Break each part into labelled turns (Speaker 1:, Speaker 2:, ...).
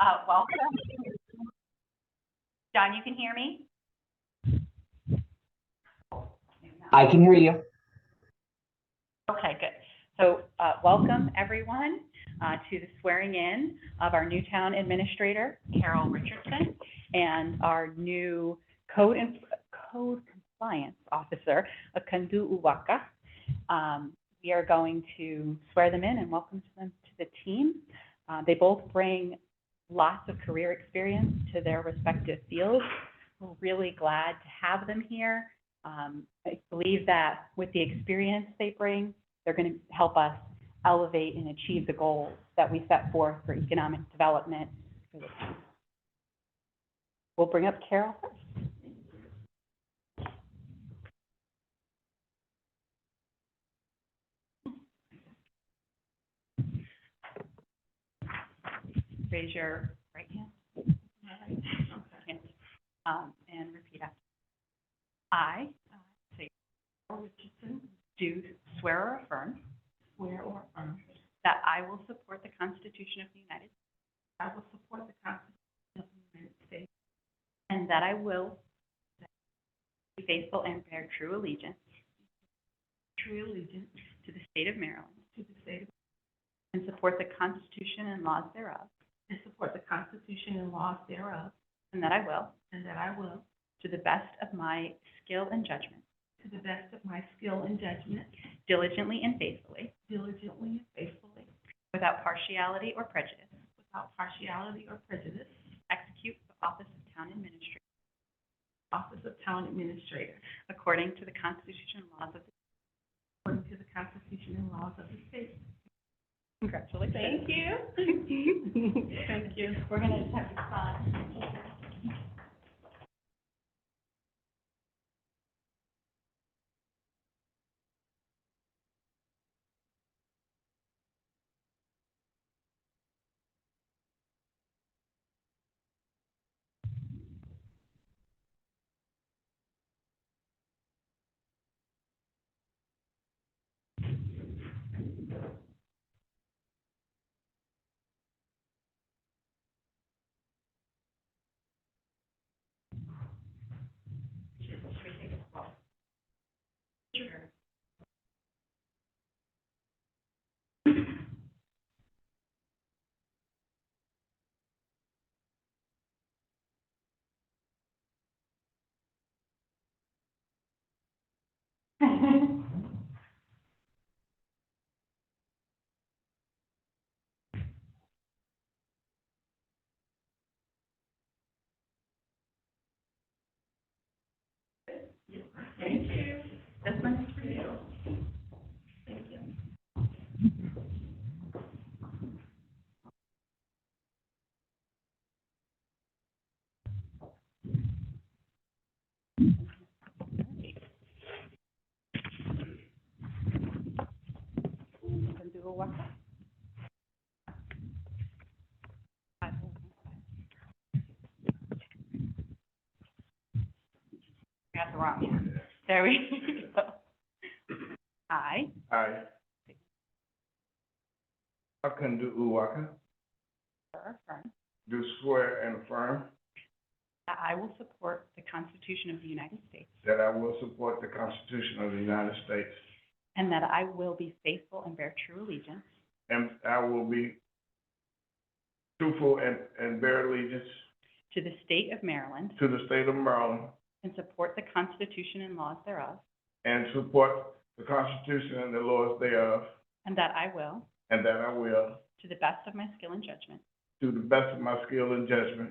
Speaker 1: uh, welcome. John, you can hear me?
Speaker 2: I can hear you.
Speaker 1: Okay, good. So, uh, welcome everyone, uh, to the swearing in of our new town administrator, Carol Richardson, and our new code and, code compliance officer, Akandu Uwaka. Um, we are going to swear them in and welcome them to the team. Uh, they both bring lots of career experience to their respective fields. We're really glad to have them here. Um, I believe that with the experience they bring, they're going to help us elevate and achieve the goals that we set forth for economic development. for the town. We'll bring up Carol first. Raise your right hand. Um, And repeat after. I, uh, say, Carol Richardson, do swear or affirm
Speaker 3: Swear or affirm
Speaker 1: that I will support the Constitution of the United States
Speaker 3: I will support the Constitution of the United States
Speaker 1: and that I will be faithful and bear true allegiance
Speaker 3: true allegiance
Speaker 1: to the state of Maryland
Speaker 3: to the state of-
Speaker 1: and support the Constitution and laws thereof,
Speaker 3: and support the Constitution and laws thereof,
Speaker 1: and that I will,
Speaker 3: and that I will,
Speaker 1: to the best of my skill and judgment,
Speaker 3: to the best of my skill and judgment,
Speaker 1: diligently and faithfully,
Speaker 3: diligently and faithfully,
Speaker 1: without partiality or prejudice,
Speaker 3: without partiality or prejudice,
Speaker 1: execute the office of town administrator
Speaker 3: office of town administrator,
Speaker 1: according to the Constitution and laws of the
Speaker 3: according to the Constitution and laws of the state.
Speaker 1: Congratulations.
Speaker 3: you. Thank you.
Speaker 1: We're gonna just have to sign. Thank you. This one's for you. Thank you. do a walk. Got the wrong one. There we go. I,
Speaker 4: I, Akandu Uwaka,
Speaker 1: or affirm,
Speaker 4: do swear and affirm
Speaker 1: that I will support the Constitution of the United States
Speaker 4: that I will support the Constitution of the United States
Speaker 1: and that I will be faithful and bear true allegiance
Speaker 4: and I will be truthful and, and bear allegiance
Speaker 1: to the state of Maryland
Speaker 4: to the state of Maryland
Speaker 1: and support the Constitution and laws thereof,
Speaker 4: and support the Constitution and the laws thereof,
Speaker 1: and that I will,
Speaker 4: and that I will,
Speaker 1: to the best of my skill and judgment,
Speaker 4: to the best of my skill and judgment,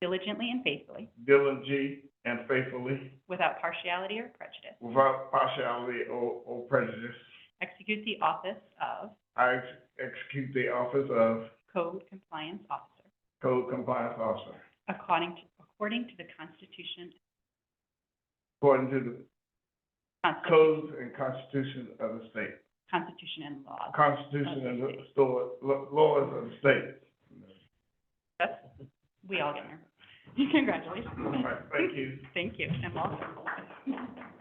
Speaker 1: diligently and faithfully,
Speaker 4: diligently and faithfully,
Speaker 1: without partiality or prejudice,
Speaker 4: without partiality or, or prejudice,
Speaker 1: execute the office of
Speaker 4: I ex- execute the office of
Speaker 1: Code Compliance Officer
Speaker 4: Code Compliance Officer.
Speaker 1: according to, according to the Constitution.
Speaker 4: According to the
Speaker 1: Constitution-
Speaker 4: codes and constitution of the state.
Speaker 1: Constitution and laws.
Speaker 4: Constitution and the law- law- laws of the state.
Speaker 1: We all get there. Congratulations.
Speaker 4: All right, thank you.
Speaker 1: Thank you, and welcome.